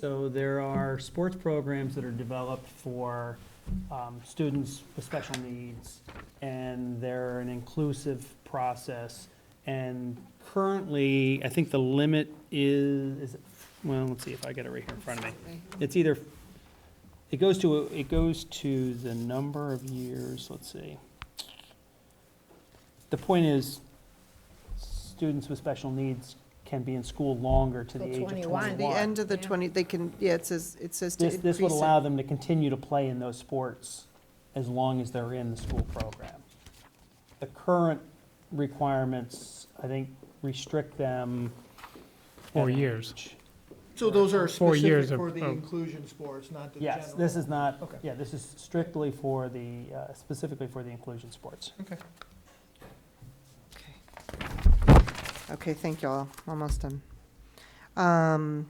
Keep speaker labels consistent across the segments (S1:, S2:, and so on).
S1: So there are sports programs that are developed for um, students with special needs, and they're an inclusive process. And currently, I think the limit is, is it- well, let's see if I get it right here in front of me. It's either, it goes to, it goes to the number of years, let's see. The point is, students with special needs can be in school longer to the
S2: Till
S1: age of
S2: 21.
S1: twenty-one.
S3: The end of the
S2: Yeah.
S3: 20, they can, yeah, it says, it says to
S1: This,
S3: increase
S1: this would
S3: it.
S1: allow them to continue to play in those sports as long as they're in the school program. The current requirements, I think, restrict them.
S4: Four
S1: at
S4: years.
S1: age.
S5: So those are
S4: Four years
S5: specific
S4: of-
S5: for the
S4: of-
S5: inclusion sports, not the general?
S1: Yes, this is not,
S5: Okay.
S1: yeah, this is strictly for the, uh, specifically for the inclusion sports.
S5: Okay.
S3: Okay, thank you all, almost done. Um,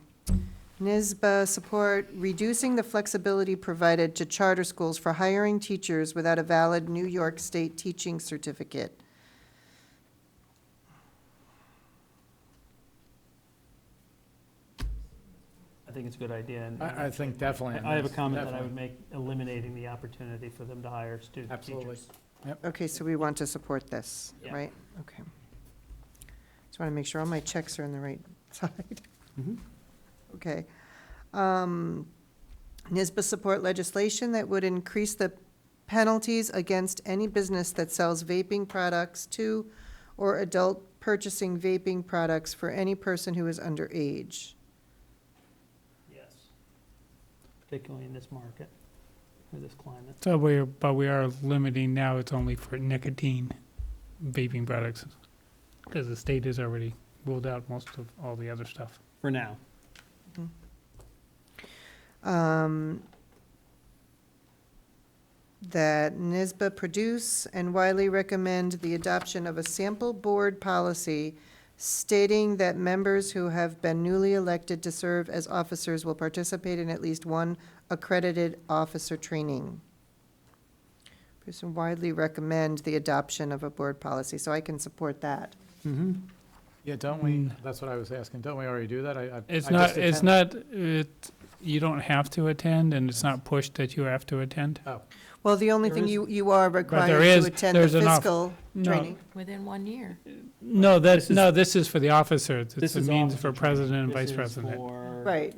S3: NISBA support, reducing the flexibility provided to charter schools for hiring teachers without a valid New York State teaching certificate.
S1: I think it's a good idea. and-
S4: I, I think definitely.
S1: I I have a comment that I would make, eliminating the opportunity for them to hire student
S4: Absolutely.
S1: teachers.
S3: Okay, so we want to support this,
S1: Yeah.
S3: right? Okay. Just want to make sure all my checks are on the right side.
S1: Mhm.
S3: Okay. Um, NISBA support legislation that would increase the penalties against any business that sells vaping products to or adult purchasing vaping products for any person who is underage.
S1: Yes. Particularly in this market, or this climate.
S4: So we, but we are limiting now, it's only for nicotine vaping products, because the state has already ruled out most of all the other stuff.
S1: For now.
S3: um, that NISBA produce and widely recommend the adoption of a sample board policy stating that members who have been newly elected to serve as officers will participate in at least one accredited officer training. Produce and widely recommend the adoption of a board policy, so I can support that.
S1: Mm-hmm.
S6: Yeah, don't we,
S4: Mm.
S6: that's what I was asking, don't we already do that? I- I-
S4: It's
S6: I
S4: not,
S6: just
S4: it's
S6: attend-
S4: not, it, you don't have to attend, and it's not pushed that you have to attend.
S6: Oh.
S3: Well, the only
S4: There
S3: thing
S4: is-
S3: you, you are required
S4: is-
S3: to attend the
S4: there's an off-
S3: fiscal
S4: No.
S3: training.
S2: Within one year.
S4: No,
S1: This
S4: that,
S1: is-
S4: no, this is for the officers, it's
S1: This
S4: a
S1: is
S4: means
S1: officer
S4: for
S1: training.
S4: president and vice
S1: This is
S4: president.
S1: for-
S3: Right,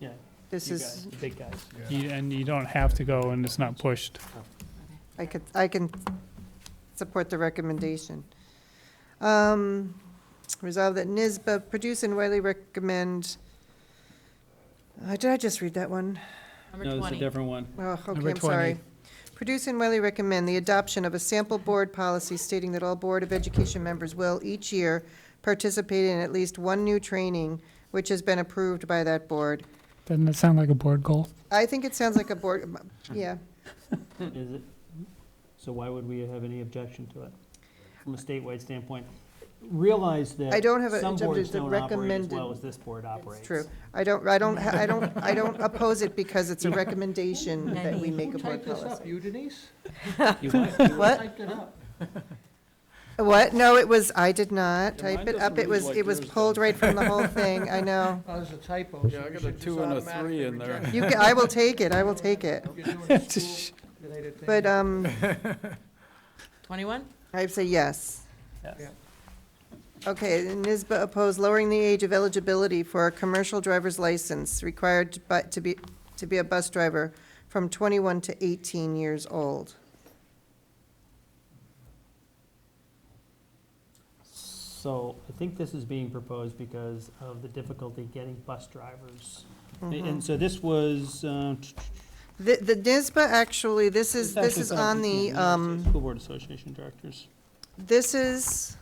S1: Yeah,
S3: this
S1: you
S3: is,
S1: guys, the big guys.
S4: You- And you don't have to go, and it's not pushed.
S3: I could, I can support the recommendation. Um, Resolve that NISBA produce and widely recommend, uh, did I just read that one?
S2: Number
S1: No, it's a
S2: 20.
S1: different one.
S3: Oh, okay,
S4: Number
S3: I'm sorry.
S4: 20.
S3: Produce and widely recommend the adoption of a sample board policy stating that all Board of Education members will each year participate in at least one new training which has been approved by that board.
S4: Doesn't that sound like a board goal?
S3: I think it sounds like a board, yeah.
S1: Is it? So why would we have any objection to it? From a statewide standpoint, realize that
S3: I don't have a-
S1: some boards
S3: the
S1: don't operate as well
S3: recommended-
S1: as this board operates.
S3: true. I don't, I don't, I don't, I don't oppose it because it's a recommendation that we
S2: Who
S3: make a board
S5: Type this
S3: policy.
S5: up, you Denise?
S1: You might-
S3: What?
S5: Typed it up.
S3: What? No, it was, I did not
S5: Yeah, mine
S3: type it
S5: doesn't
S3: up. It
S5: read
S3: was,
S6: like
S3: it was
S6: yours
S3: pulled
S6: does.
S3: right from the whole thing, I know.
S5: Oh, there's a typo.
S6: Yeah, I got a two and a three in there.
S3: You, ca- I will take it, I will take it. But, um,
S2: Twenty-one?
S3: I say yes.
S1: Yes.
S3: Okay, NISBA opposed lowering the age of eligibility for a commercial driver's license required to bu- to be, to be a bus driver from twenty-one to eighteen years old.
S1: So I think this is being proposed because of the difficulty getting bus drivers. A-
S3: Mm-hmm.
S1: And so this was, uh, t-
S3: The, the NISBA actually, this is,
S1: It's
S3: this
S1: actually
S3: is
S1: from
S3: on the,
S1: Massachusetts
S3: um,
S1: School Board Association Directors.
S3: This is,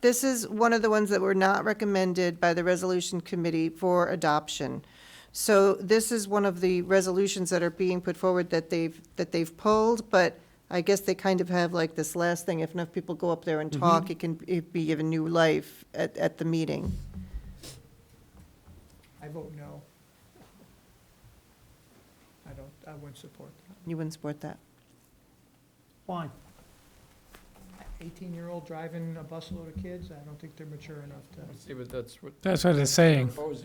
S3: this is one of the ones that were not recommended by the Resolution Committee for adoption. So this is one of the resolutions that are being put forward that they've, that they've pulled, but I guess they kind of have like this last thing, if enough people go up there and talk, it can it be given new life at, at the meeting.
S5: I vote no. I don't, I wouldn't support that.
S3: You wouldn't support that?
S1: Why?
S5: Eighteen-year-old driving a busload of kids, I don't think they're mature enough to.
S6: See, but that's what
S4: That's what it's saying.
S6: proposing.